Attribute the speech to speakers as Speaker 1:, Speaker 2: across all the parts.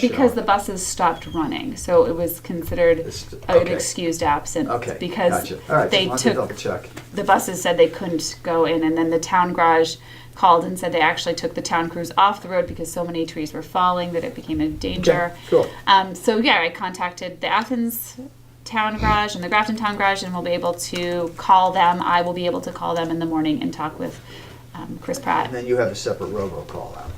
Speaker 1: Because the buses stopped running, so it was considered
Speaker 2: It's-
Speaker 1: an
Speaker 2: okay.
Speaker 1: excused absence.
Speaker 2: Okay,
Speaker 1: Because
Speaker 2: gotcha. All right,
Speaker 1: they
Speaker 2: just wanted to
Speaker 1: took,
Speaker 2: double check.
Speaker 1: the buses said they couldn't go in, and then the town garage called and said they actually took the town crews off the road because so many trees were falling that it became a danger.
Speaker 2: cool.
Speaker 1: Um, so yeah, I contacted the Athens Town Garage and the Grafton Town Garage, and we'll be able to call them. I will be able to call them in the morning and talk with um, Chris Pratt.
Speaker 2: And then you have a separate robocall out.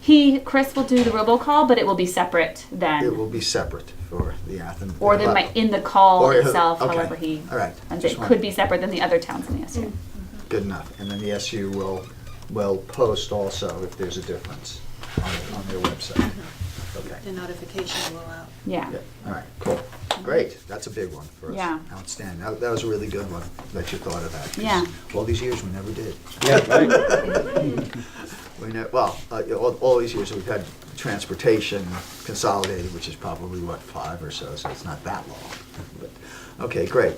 Speaker 1: He, Chris, will do the robocall, but it will be separate then.
Speaker 2: It will be separate for the Athens.
Speaker 1: Or they might, in the call
Speaker 2: Or-
Speaker 1: itself,
Speaker 2: okay.
Speaker 1: however he,
Speaker 2: All right.
Speaker 1: and
Speaker 2: Just Mm.
Speaker 1: it
Speaker 2: wanted-
Speaker 1: could be separate than the other towns in the SU.
Speaker 2: Good enough. And then the SU will, will post also if there's a difference on, on their website. Okay.
Speaker 3: The notification will out.
Speaker 1: Yeah.
Speaker 2: Yeah, all right, cool. Great, that's a big one for us.
Speaker 1: Yeah.
Speaker 2: Outstanding. That, that was a really good one that you thought of that. 'cause
Speaker 1: Yeah.
Speaker 2: All these years, we never did.
Speaker 4: Yeah, right.
Speaker 2: We ne well, uh, you know, all, all these years, we've had transportation consolidated, which is probably, what, five or so, so it's not that long. But, okay, great.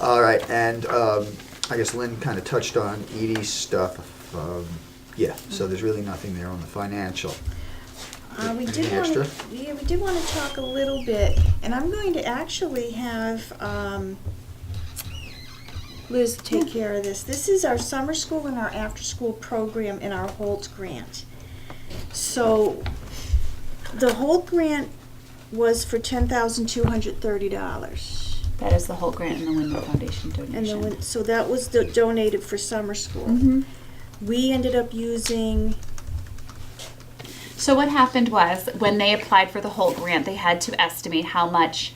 Speaker 2: All right, and, um, I guess Lynn kind of touched on Edie's stuff. Um, yeah, so there's really nothing there on the financial.
Speaker 5: Uh, we
Speaker 2: Anything
Speaker 5: did want,
Speaker 2: extra?
Speaker 5: yeah, we did want to talk a little bit, and I'm going to actually have, um, Liz take care of this. This is our summer school and our after-school program in our Holt grant. So, the Holt grant was for ten thousand two hundred thirty dollars.
Speaker 1: That is the whole grant and the Wyndham Foundation
Speaker 5: And then,
Speaker 1: donation.
Speaker 5: when- so that was do- donated for summer school.
Speaker 1: Mhm.
Speaker 5: We ended up using,
Speaker 1: So what happened was when they applied for the whole grant, they had to estimate how much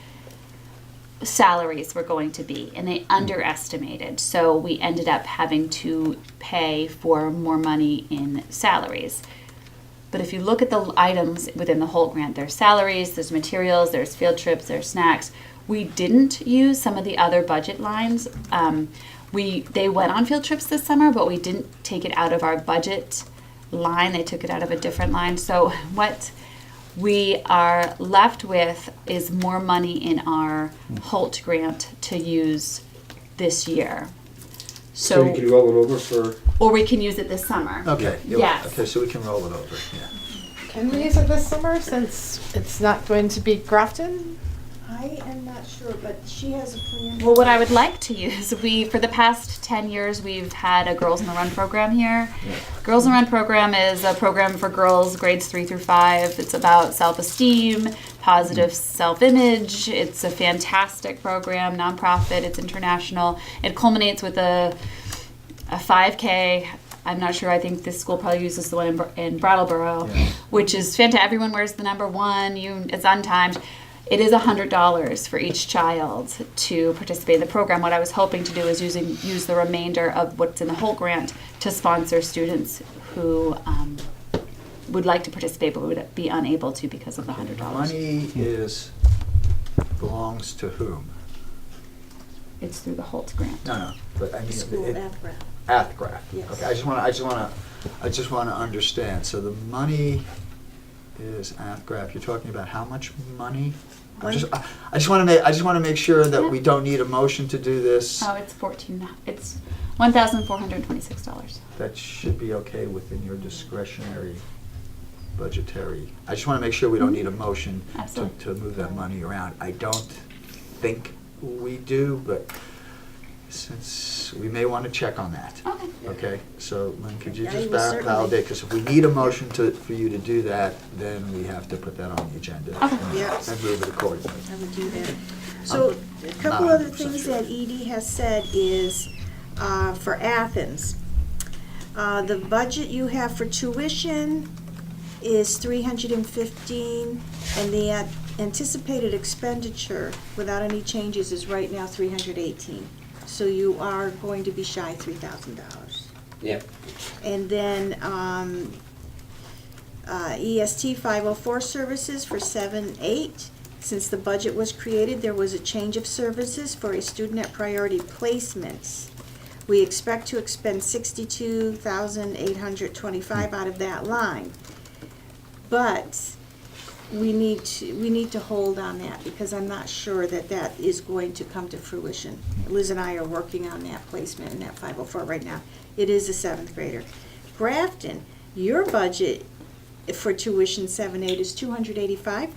Speaker 1: salaries were going to be, and
Speaker 2: Mm.
Speaker 1: they underestimated. So we ended up having to pay for more money in salaries. But if you look at the items within the whole grant, there's salaries, there's materials, there's field trips, there's snacks. We didn't use some of the other budget lines. Um, we they went on field trips this summer, but we didn't take it out of our budget line. They took it out of a different line. So what we are left with is more money in our Holt grant to use this year.
Speaker 4: So you could
Speaker 1: So,
Speaker 4: roll it over for,
Speaker 1: or we can use it this summer.
Speaker 2: Okay.
Speaker 1: Yeah. Yes.
Speaker 2: Okay, so we can roll it over, yeah.
Speaker 6: Can we use it this summer since it's not going to be Grafton?
Speaker 5: I am not sure, but she has a plan.
Speaker 1: Well, what I would like to use, we for the past ten years we've had a Girls in the Run program here. Girls in the Run program is a program for girls grades three through five. It's about self-esteem, positive self-image. It's a fantastic program, nonprofit. It's international. It culminates with a a 5K. I'm not sure. I think this school probably uses the one in, Br- in Brattleboro,
Speaker 2: Yeah.
Speaker 1: which is fantastic. Everyone wears the number one. You, it's untimed. It is $100 for each child to participate in the program. What I was hoping to do is using use the remainder of what's in the whole grant to sponsor students who um, would like to participate but would be unable to because of the $100.
Speaker 2: Money is, belongs to whom?
Speaker 1: It's through the Holt grant.
Speaker 2: No, no, but I mean.
Speaker 5: School
Speaker 2: it-
Speaker 5: athletic.
Speaker 2: Athgraph.
Speaker 5: Yes.
Speaker 2: Okay, I just want to, I just want to, I just want to understand. So the money is Athgraph. You're talking about how much money? I just, I I just want to make, I just want to make sure that we don't need a motion to do this.
Speaker 1: Oh, it's 14 It's $1,426.
Speaker 2: That should be okay within your discretionary budgetary. I just want to make sure we don't need a motion to,
Speaker 1: Absolutely.
Speaker 2: to move that money around. I don't think we do, but since, we may want to check on that.
Speaker 1: Okay.
Speaker 2: Okay, so Lynn, could you
Speaker 5: Yeah,
Speaker 2: just
Speaker 5: we
Speaker 2: va-
Speaker 5: certainly-
Speaker 2: validate, because if we need a motion to, for you to do that, then we have to put that on the agenda.
Speaker 1: Okay.
Speaker 5: Yeah.
Speaker 2: And move it accordingly.
Speaker 5: I would do that. So, a couple
Speaker 2: not
Speaker 5: other
Speaker 2: 100%
Speaker 5: things
Speaker 2: sure.
Speaker 5: that Edie has said is, uh, for Athens, uh, the budget you have for tuition is three hundred and fifteen, and the a- anticipated expenditure, without any changes, is right now three hundred eighteen. So you are going to be shy three thousand dollars.
Speaker 4: yeah,
Speaker 5: And then um, uh, EST 504 services for 7-8. Since the budget was created, there was a change of services for a student at priority placements. We expect to expend 62,825 out of that line. But we need to, we need to hold on that because I'm not sure that that is going to come to fruition. Liz and I are working on that placement in that 504 right now. It is a seventh grader. Grafton, your budget for tuition 7-8 is 285